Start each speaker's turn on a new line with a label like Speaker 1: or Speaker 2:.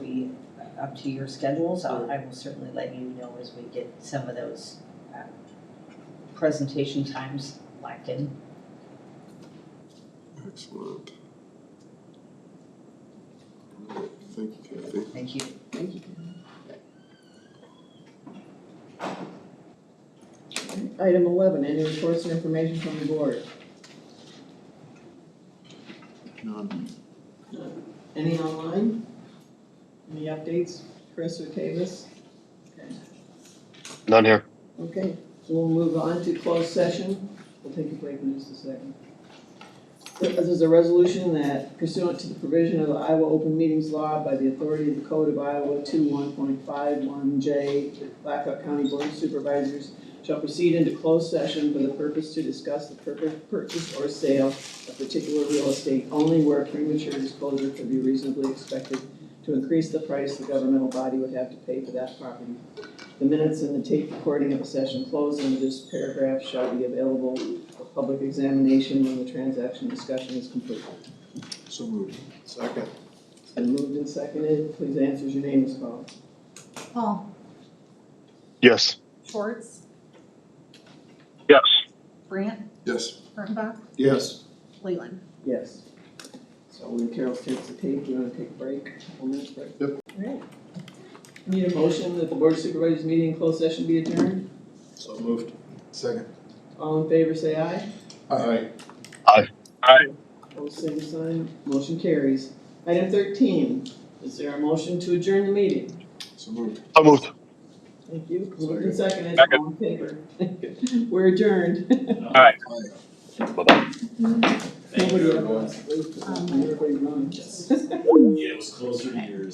Speaker 1: up to your schedules, I'll- I will certainly let you know as we get some of those uh, presentation times locked in.
Speaker 2: Excellent. All right, Thank you, Kathy.
Speaker 1: Thank you.
Speaker 3: Thank you. Item eleven, any reports or information from the board?
Speaker 2: None.
Speaker 3: Any online? Any updates, Chris or Tavis?
Speaker 4: None here.
Speaker 3: Okay, so we'll move on to closed session. We'll take a break in just a second. This is a resolution that pursuant to the provision of the Iowa Open Meetings Law by the authority of the Code of Iowa two one point five one J, the Blackhawk County Board of Supervisors shall proceed into closed session for the purpose to discuss the purpose, purchase or sale of particular real estate only where premature disclosure could be reasonably expected to increase the price the governmental body would have to pay for that property the minutes and the tape recording of a session closed under this paragraph shall be available for public examination when the transaction discussion is complete.
Speaker 2: So moved. Second.
Speaker 3: It's been moved and seconded, please answer as your name is called.
Speaker 5: Paul
Speaker 4: Yes.
Speaker 5: Schwartz,
Speaker 4: Yes.
Speaker 5: Brant,
Speaker 2: Yes.
Speaker 5: Kurttenbach,
Speaker 2: Yes.
Speaker 5: Leland.
Speaker 3: Yes. So when Carol takes the tape, you wanna take a break, a couple minutes break?
Speaker 2: Yep.
Speaker 3: Alright. Need a motion that the board of supervisors meeting in closed session be adjourned?
Speaker 2: So moved. Second.
Speaker 3: All in favor, say aye.
Speaker 2: Aye.
Speaker 3: Opposed, same sign, motion carries. Item thirteen, is there a motion to adjourn the meeting?
Speaker 2: So moved.
Speaker 4: So moved.
Speaker 3: Thank you.
Speaker 2: Sorry.
Speaker 3: Moved and seconded, all in favor. We're adjourned.
Speaker 2: Aye.
Speaker 4: Bye-bye.
Speaker 3: Nobody else.
Speaker 5: Um,
Speaker 3: Everybody runs.
Speaker 6: Yeah, it was closer to yours.